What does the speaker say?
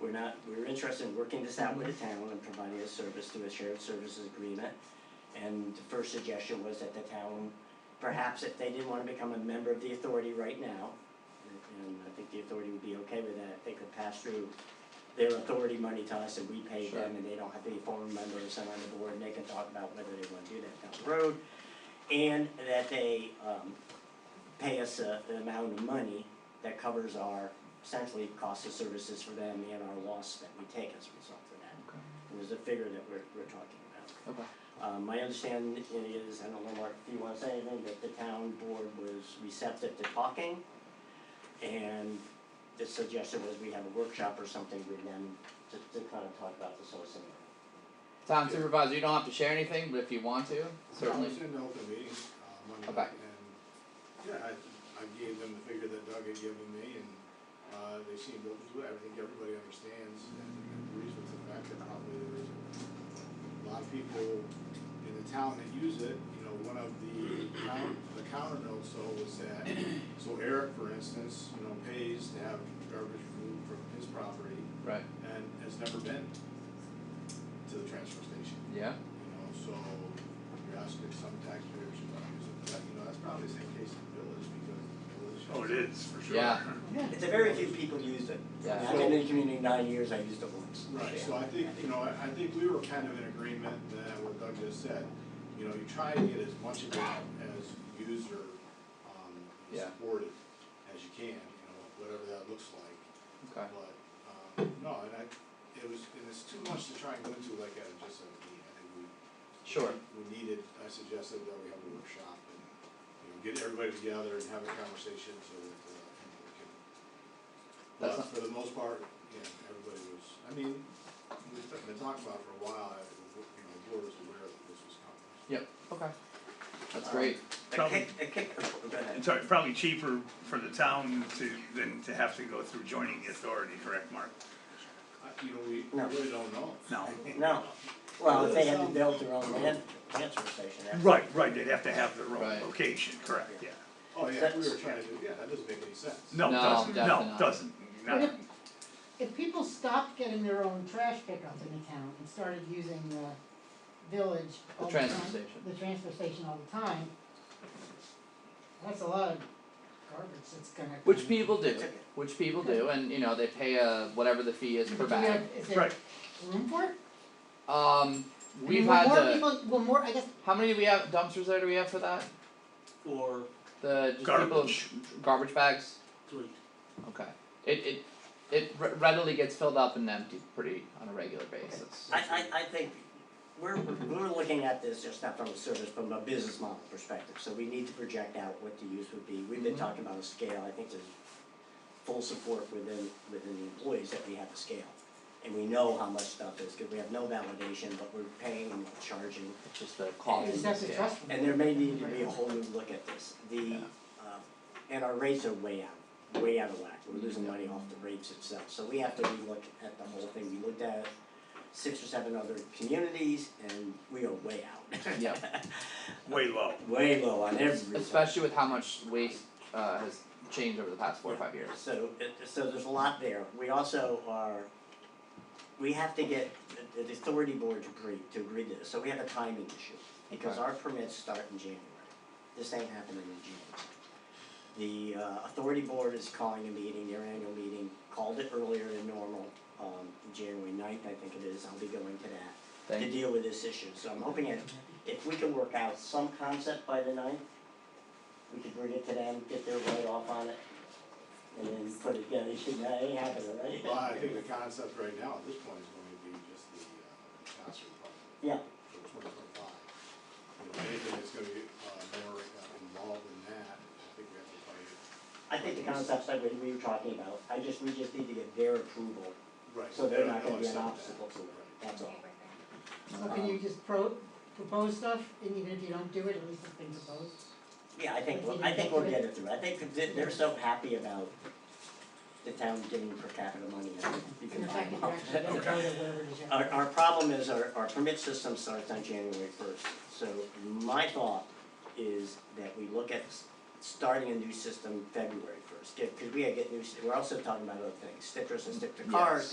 we're not, we're interested in working this out with the town and providing a service through a shared services agreement. And the first suggestion was that the town, perhaps if they didn't wanna become a member of the authority right now, and I think the authority would be okay with that, they could pass through their authority money to us and we pay Sure. them and they don't have to be former members and on the board and they can talk about whether they wanna do that down the road. And that they, um, pay us a, an amount of money that covers our essentially cost of services for them and our loss that we take as a result of that. Okay. It was a figure that we're, we're talking about. Okay. Um, my understanding is, I don't know, Mark, if you wanna say anything, that the town board was receptive to talking. And the suggestion was we have a workshop or something with them to, to kind of talk about this whole scenario. Town supervisor, you don't have to share anything, but if you want to, certainly. I was in the open meeting, uh, Monday Okay. night, and, yeah, I, I gave them the figure that Doug had given me, and, uh, they seemed open to it, I think everybody understands and agrees with the fact that probably there is a lot of people in the town that use it, you know, one of the counter, the counter notes though was that, so Eric, for instance, you know, pays to have garbage removed from his property, Right. and has never been to the transfer station Yeah. you know, so you're asking some taxpayers to not use it, but, you know, that's probably the same case in the village, because the village. Oh, it is, for sure. Yeah. It's a very few people use it. Yeah. I've been in the community nine years, I used it once. Right, so I think, you know, I, I think we were kind of in agreement that what Doug just said, you know, you try to get as much of it as user, um, Yeah. supported as you can, you know, whatever that looks like. Okay. But, um, no, and I, it was, and it's too much to try and go into like at just a meeting, I think we. Sure. We needed, I suggested that we have a workshop and, you know, get everybody together and have a conversation so that, uh, people can. That's But not- for the most part, yeah, everybody was, I mean, we've been talking about it for a while, I, you know, the board was aware that this was coming. Yep. Okay. That's great. The kick, the kick, go ahead. It's al- probably cheaper for the town to, than to have to go through joining the authority, correct, Mark? I, you know, we No. really don't know. No. No, well, if they had to build their own land, transfer station, that's. Right, right, they'd have to have their own Right. location, correct, yeah. Oh, yeah, we were trying to do, yeah, that doesn't make any sense. No, No, doesn't, definitely no, not. doesn't, But no, if, if people stopped getting their own trash pickup in the town and started using the village The all the time. transfer station. the transfer station all the time, that's a lot of garbage that's gonna. Which come. people do. Which people do, and you know they pay a whatever the fee is But per do we bag. have- Is there right, room for it? Um, I mean, we've will had more the. people- Will more, I guess, How many do we have dumpsters there? Do we have for that? Or The just garbage, people garbage bags. three. Okay. It it it re- readily gets filled up and emptied pretty on a regular basis. I I I think we're we're looking at this just not from a service, from a business model perspective, so we need to project out what the use would be. We've been Mhm. talking about a scale, I think there's full support within within the employees that we have a scale. And we know how much stuff is, cause we have no validation, but we're paying and we're charging. It's just the you cost. just have to yeah. trust them. And there may need to be a whole new look at this, the, Yeah. uh, and our rates are way out, way out of whack, we're losing money off the rates itself, so we have to relook at the whole thing, we looked at six or seven other communities, and we are way out. Yeah. way low. Way low on everything, especially with how much waste uh, has changed over the past four or five years. so, it- so there's a lot there, we also are, we have to get the- the authority board to agree, to agree to this, so we have a timing issue. Because Okay. our permits start in January, this ain't happening in June. The uh, authority board is calling a meeting, their annual meeting, called it earlier than normal, um, January 9th, I think it is, I'll be going to that. To Thank you. deal with this issue, so I'm hoping that if we can work out some concept by the ninth, we could bring it to them, get their write off on it. And then put it together, that ain't happening, right? Well, I think the concept right now at this point is going to be just the, uh, concert part. Yeah. For twenty twenty-five. You know, anything that's gonna get, uh, more uh, involved in that, I think we have to fight it. I think the concepts that we, we were talking about, I just, we just need to get their approval, Right. so they're not They gonna don't be an accept that. obstacle to it, that's all. So can um, you just pro, propose stuff, and even if you don't do it, at least it's been proposed? Yeah, I think, we'll- I think we'll get it through, I think that they're so happy about the town giving per capita money, I think you And can the buy fact that them you're all. actually gonna vote or whatever it is. you have Our, to do. our problem is our, our permit system starts on January first, so my thought is that we look at s- starting a new system February first, cause we gotta get new, s- we're also talking about other things, stickers and sticker Yes. cars,